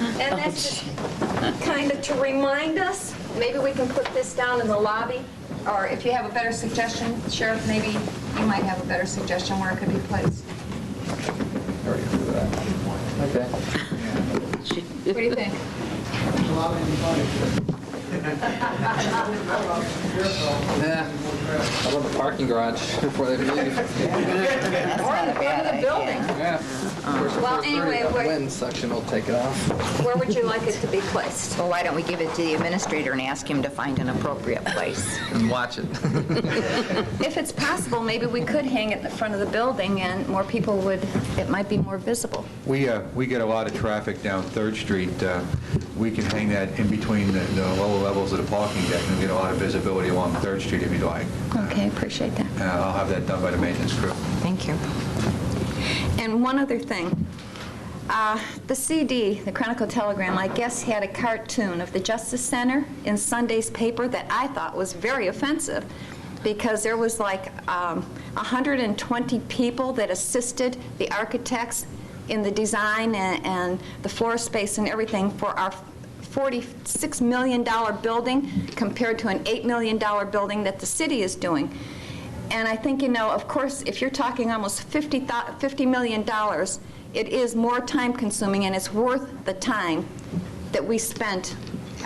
And that's just kind of to remind us, maybe we can put this down in the lobby, or if you have a better suggestion, Sheriff, maybe you might have a better suggestion where it could be placed. Okay. What do you think? Yeah. Eh, I love the parking garage before they leave. Or in the front of the building, Yeah. Well, anyway, The we're- wind section will take it off. where would you like it to be placed? Well, why don't we give it to the administrator and ask him to find an appropriate place? And watch it. If it's possible, maybe we could hang it in the front of the building, and more people would, it might be more visible. We, uh, we get a lot of traffic down Third Street. Uh, We can hang that in between the the lower levels of the parking deck and get a lot of visibility along Third Street if you'd like. Okay, appreciate that. Uh, I'll have that done by the maintenance crew. Thank you. And one other thing. Uh, The CD, the Chronicle Telegram, I guess had a cartoon of the Justice Center in Sunday's paper that I thought was very offensive because there was like um, 120 people that assisted the architects in the design and and the floor space and everything for our $46 million building compared to an $8 million building that the city is doing. And I think, you know, of course, if you're talking almost 50 thou- $50 million, it is more time-consuming, and it's worth the time that we spent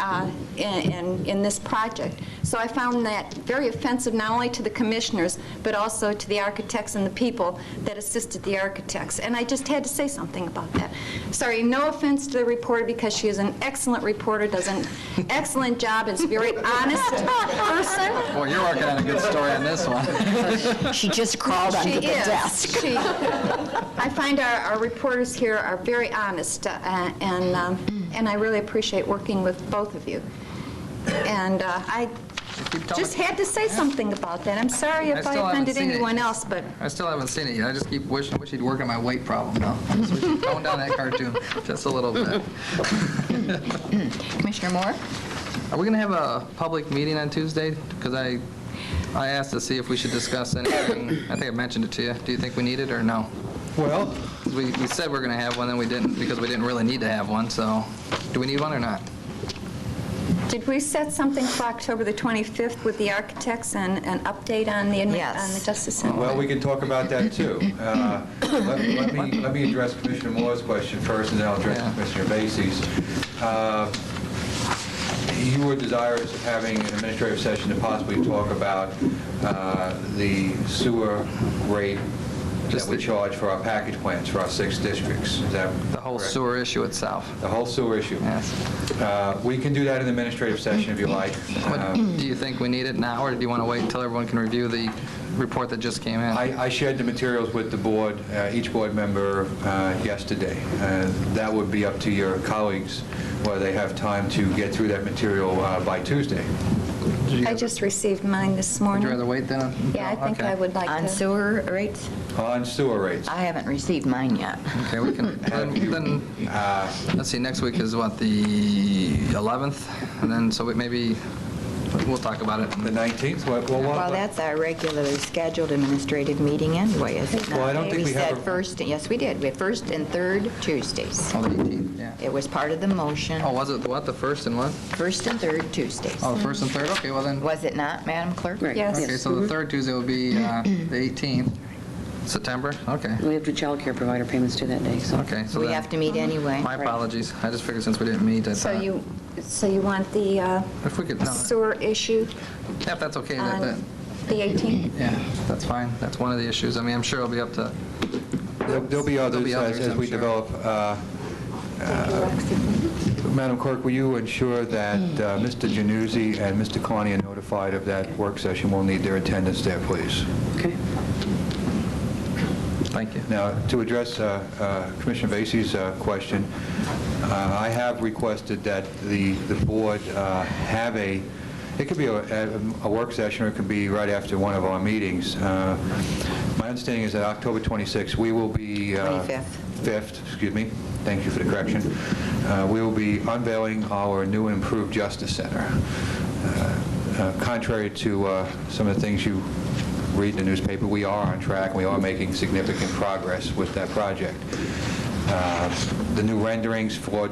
uh, in in- in this project. So I found that very offensive, not only to the commissioners, but also to the architects and the people that assisted the architects. And I just had to say something about that. Sorry, no offense to the reporter, because she is an excellent reporter, does an excellent job, is a very honest person. Well, you're working on a good story on this one. She just crawled She under the is. desk. She- I find our our reporters here are very honest, uh, and, um, and I really appreciate working with both of you. And uh, I Keep telling just me. had to say something about that. I'm sorry I if I still haven't offended seen it. anyone else, but I still haven't seen it yet. I just keep wishing, wish he'd work on my weight problem now. I just wish he'd tone down that cartoon just a little bit. Commissioner Moore? Are we going to have a public meeting on Tuesday? Because I, I asked to see if we should discuss anything. I think I mentioned it to you. Do you think we need it or no? Well... We, we said we're going to have one, then we didn't, because we didn't really need to have one, so do we need one or not? did we set something for October the 25th with the architects and an update on the, admi- Yes. on the Justice Center? Well, we can talk about that, too. Uh, Let let me, let me address Commissioner Moore's question first, and then I'll address Yeah. Commissioner Vacy's. Uh, You were desirous of having an administrative session to possibly talk about uh, the sewer rate that Just we the- charge for our package plants for our six districts. Is that The whole correct? sewer issue itself. The whole sewer issue. Yes. Uh, We can do that in the administrative session if you like. But Uh, do you think we need it now, or do you want to wait until everyone can review the report that just came in? I I shared the materials with the board, uh, each board member uh, yesterday. Uh, That would be up to your colleagues, whether they have time to get through that material uh, by Tuesday. I just received mine this Would morning. you rather wait then? Yeah, I think Oh, Okay. I would like to. On sewer rates? On sewer rates, I haven't received mine yet. Okay, we can, then- then, let's see, next week is what, the 11th? And then, so we- maybe, we'll talk about it. the 19th, what- what- Well, what- that's our regularly scheduled administrative meeting anyway, is it not? Well, I don't think we have We a- said first, yes, we did, we had first and third Tuesdays. Oh, the 18th, yeah. It was part of the motion, Oh, was it, what, the first and what? first and third Tuesdays. Oh, the first and third, okay, well then, Was it not, Madam Clerk? Right. Yes. okay, so the third Tuesday will be uh, the 18th, September, okay, We have to childcare provider payments due that day, so. okay. so We then- have to meet anyway. My apologies, I just figured since we didn't meet, I So thought, you, so you want the uh, uh, if we could, no, sewer issue yeah, if that's okay, that, that- on Um, the 18th? yeah, that's fine, that's one of the issues, I mean, I'm sure it'll be up to, there'll there'll be others be as others, as I'm we sure. develop. uh, Madam Clerk, will you ensure that uh, Mr. Januzzi and Mr. Kalani are notified of that work session? We'll need their attendance there, please. Okay. thank you. Now, to address uh, uh, Commissioner Vacy's uh, question, uh, I have requested that the the board uh, have a, it could be a a work session, or it could be right after one of our meetings. Uh, My understanding is that October 26th, we will be... uh, 25th. 5th, excuse me, thank you for the correction, Uh, we will be unveiling our new and improved Justice Center. Uh, uh, Contrary to uh, some of the things you read in the newspaper, we are on track, we are making significant progress with that project. Uh, The new renderings for